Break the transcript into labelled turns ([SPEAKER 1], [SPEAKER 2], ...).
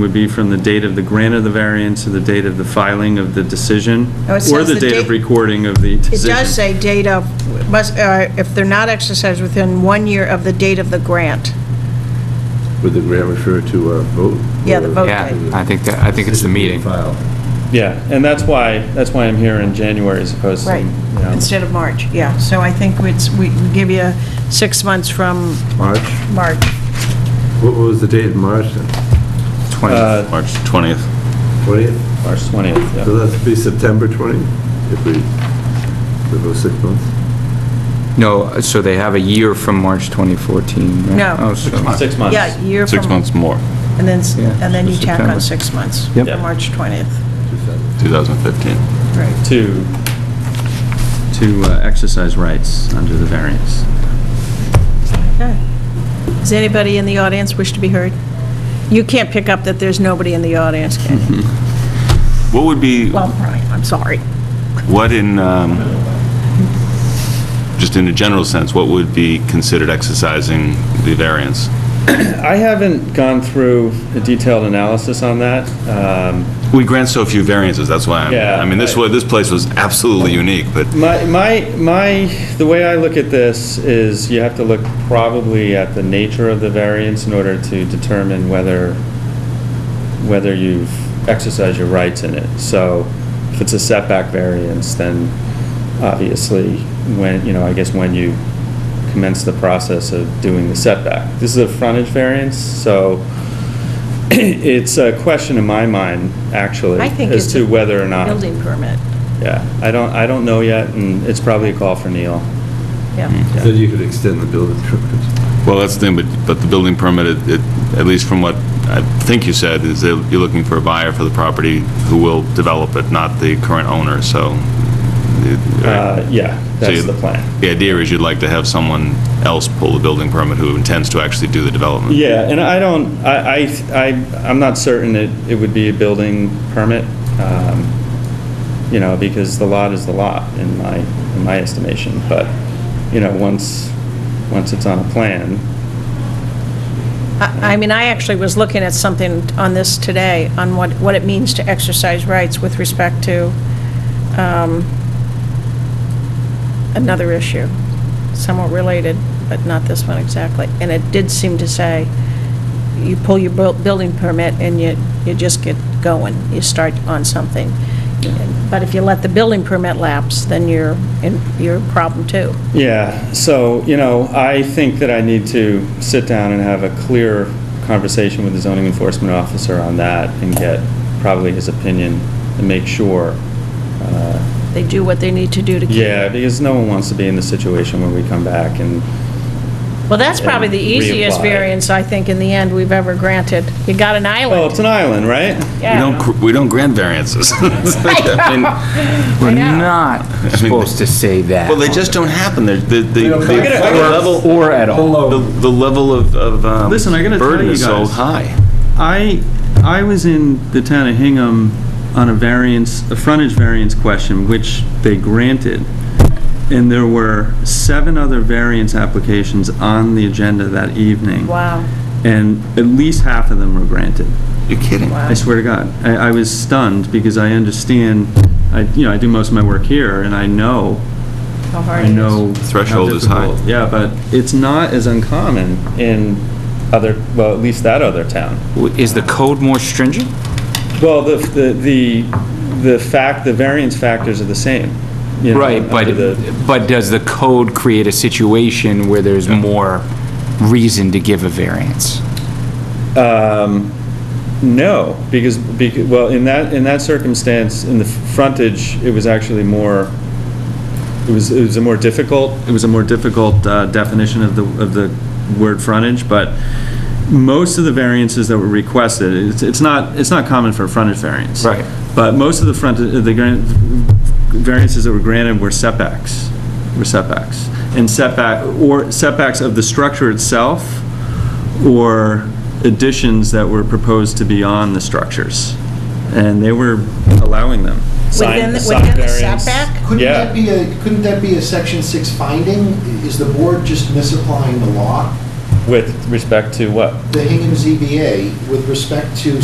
[SPEAKER 1] would be from the date of the grant of the variance to the date of the filing of the decision,
[SPEAKER 2] No, Oh, it
[SPEAKER 1] or
[SPEAKER 2] says
[SPEAKER 1] the
[SPEAKER 2] the
[SPEAKER 1] date of
[SPEAKER 2] date-
[SPEAKER 1] recording of the
[SPEAKER 2] It
[SPEAKER 1] decision.
[SPEAKER 2] does say date of, must, uh, if they're not exercised within one year of the date of the grant.
[SPEAKER 3] Would the grant refer to a vote?
[SPEAKER 2] Yeah, the vote
[SPEAKER 4] Yeah,
[SPEAKER 2] date.
[SPEAKER 4] I think, that I think it's the meeting.
[SPEAKER 3] File.
[SPEAKER 5] Yeah, and that's why, that's why I'm here in January as opposed to,
[SPEAKER 2] Right,
[SPEAKER 5] you know.
[SPEAKER 2] instead of March, yeah. So I think it's, we we give you six months from
[SPEAKER 3] March?
[SPEAKER 2] March.
[SPEAKER 3] What was the date in March then?
[SPEAKER 1] 20th, March 20th.
[SPEAKER 3] 20th?
[SPEAKER 5] uh, March 20th, yeah.
[SPEAKER 3] So that'd be September 20th, if we, we go six months?
[SPEAKER 4] No, so they have a year from March 2014, right?
[SPEAKER 2] No.
[SPEAKER 4] Oh, so-
[SPEAKER 5] Six months.
[SPEAKER 2] Yeah, year from.
[SPEAKER 6] Six months more,
[SPEAKER 2] And then, s-
[SPEAKER 4] Yeah,
[SPEAKER 2] and then
[SPEAKER 4] so
[SPEAKER 2] you tack
[SPEAKER 4] September.
[SPEAKER 2] on six months.
[SPEAKER 4] Yep.
[SPEAKER 2] from March 20th.
[SPEAKER 6] 2015.
[SPEAKER 2] Right.
[SPEAKER 5] To,
[SPEAKER 1] To uh, exercise rights under the variance.
[SPEAKER 2] Okay. Does anybody in the audience wish to be heard? You can't pick up that there's nobody in the audience, can you?
[SPEAKER 6] What would be,
[SPEAKER 2] Well, Brian, I'm sorry.
[SPEAKER 6] what in, um, just in a general sense, what would be considered exercising the variance?
[SPEAKER 5] I haven't gone through a detailed analysis on that. Um,
[SPEAKER 6] We grant so few variances, that's why, I'm-
[SPEAKER 5] Yeah,
[SPEAKER 6] I mean, this
[SPEAKER 5] I-
[SPEAKER 6] wa, this place was absolutely unique, but
[SPEAKER 5] My, my, my, the way I look at this is you have to look probably at the nature of the variance in order to determine whether, whether you've exercised your rights in it. So if it's a setback variance, then obviously when, you know, I guess when you commence the process of doing the setback. This is a frontage variance, so it's a question in my mind, actually,
[SPEAKER 2] I think
[SPEAKER 5] as
[SPEAKER 2] it's
[SPEAKER 5] to
[SPEAKER 2] a
[SPEAKER 5] whether or not.
[SPEAKER 2] building permit,
[SPEAKER 5] Yeah, I don't, I don't know yet, and it's probably a call for Neil.
[SPEAKER 6] Mm.
[SPEAKER 2] yeah.
[SPEAKER 3] Then you could extend the building permit.
[SPEAKER 6] Well, that's the thing, but, but the building permit, it- it- at least from what I think you said, is that you're looking for a buyer for the property who will develop it, not the current owner, so. it-
[SPEAKER 5] Uh, yeah,
[SPEAKER 6] So you-
[SPEAKER 5] that's the plan.
[SPEAKER 6] The idea is you'd like to have someone else pull the building permit who intends to actually do the development.
[SPEAKER 5] Yeah, and I don't, I, I, I- I'm not certain it, it would be a building permit, um, you know, because the lot is the lot in my, in my estimation, but, you know, once, once it's on a plan,
[SPEAKER 2] I I mean, I actually was looking at something on this today, on what, what it means to exercise rights with respect to um, another issue, somewhat related, but not this one exactly. And it did seem to say, you pull your buil- building permit and you, you just get going, you start on something. But if you let the building permit lapse, then you're, in you're a problem too.
[SPEAKER 5] Yeah, so, you know, I think that I need to sit down and have a clear conversation with the zoning enforcement officer on that and get probably his opinion and make sure. uh,
[SPEAKER 2] They do what they need to do to keep.
[SPEAKER 5] Yeah, because no one wants to be in the situation where we come back and,
[SPEAKER 2] Well, that's probably the
[SPEAKER 5] and
[SPEAKER 2] easiest
[SPEAKER 5] reapply.
[SPEAKER 2] variance, I think, in the end, we've ever granted. You got an
[SPEAKER 5] well, oh, it's
[SPEAKER 2] island.
[SPEAKER 5] an island, right?
[SPEAKER 6] We don't, gr- we don't grant variances. I mean,
[SPEAKER 4] We're not supposed to say that.
[SPEAKER 6] Well, they just don't happen, they're, the, the, the
[SPEAKER 5] I gotta- I
[SPEAKER 6] the
[SPEAKER 5] gotta-
[SPEAKER 6] level,
[SPEAKER 4] Or at all.
[SPEAKER 6] the the level of, of um,
[SPEAKER 1] Listen, I gotta tell
[SPEAKER 6] burden
[SPEAKER 1] you
[SPEAKER 6] is so
[SPEAKER 1] guys.
[SPEAKER 6] high.
[SPEAKER 1] I, I was in the town of Hingham on a variance, a frontage variance question, which they granted. And there were seven other variance applications on the agenda that evening.
[SPEAKER 2] Wow.
[SPEAKER 1] And at least half of them were granted.
[SPEAKER 6] You're kidding.
[SPEAKER 1] I swear to God. I, I was stunned because I understand, I, you know, I do most of my work here and I know,
[SPEAKER 2] How hard
[SPEAKER 1] I
[SPEAKER 2] it is.
[SPEAKER 1] know. how
[SPEAKER 6] Threshold is high.
[SPEAKER 1] difficult- Yeah, but it's not as uncommon.
[SPEAKER 5] Common in other, well, at least that other town.
[SPEAKER 4] Is the code more stringent?
[SPEAKER 5] Well, the, the, the the fact, the variance factors are the same. you know,
[SPEAKER 4] Right, but,
[SPEAKER 5] under the-
[SPEAKER 4] but does the code create a situation where there's more reason to give a variance?
[SPEAKER 5] um, No, because, becau- well, in that, in that circumstance, in the frontage, it was actually more, it was, it was a more difficult,
[SPEAKER 1] it was a more difficult uh, definition of the, of the word frontage, but most of the variances that were requested, it's, it's not, it's not common for a frontage variance.
[SPEAKER 4] Right.
[SPEAKER 1] But most of the front, the gran- variances that were granted were setbacks, were setbacks. And setback, or setbacks of the structure itself, or additions that were proposed to be on the structures. And they were allowing them.
[SPEAKER 5] Sign-
[SPEAKER 2] Within, the-
[SPEAKER 5] sign
[SPEAKER 2] within the
[SPEAKER 5] variance.
[SPEAKER 2] setback?
[SPEAKER 7] Couldn't
[SPEAKER 5] Yeah.
[SPEAKER 7] that be a, couldn't that be a section six finding? Is the board just misapplying the law?
[SPEAKER 5] with respect to what?
[SPEAKER 7] The Hingham ZBA, with respect to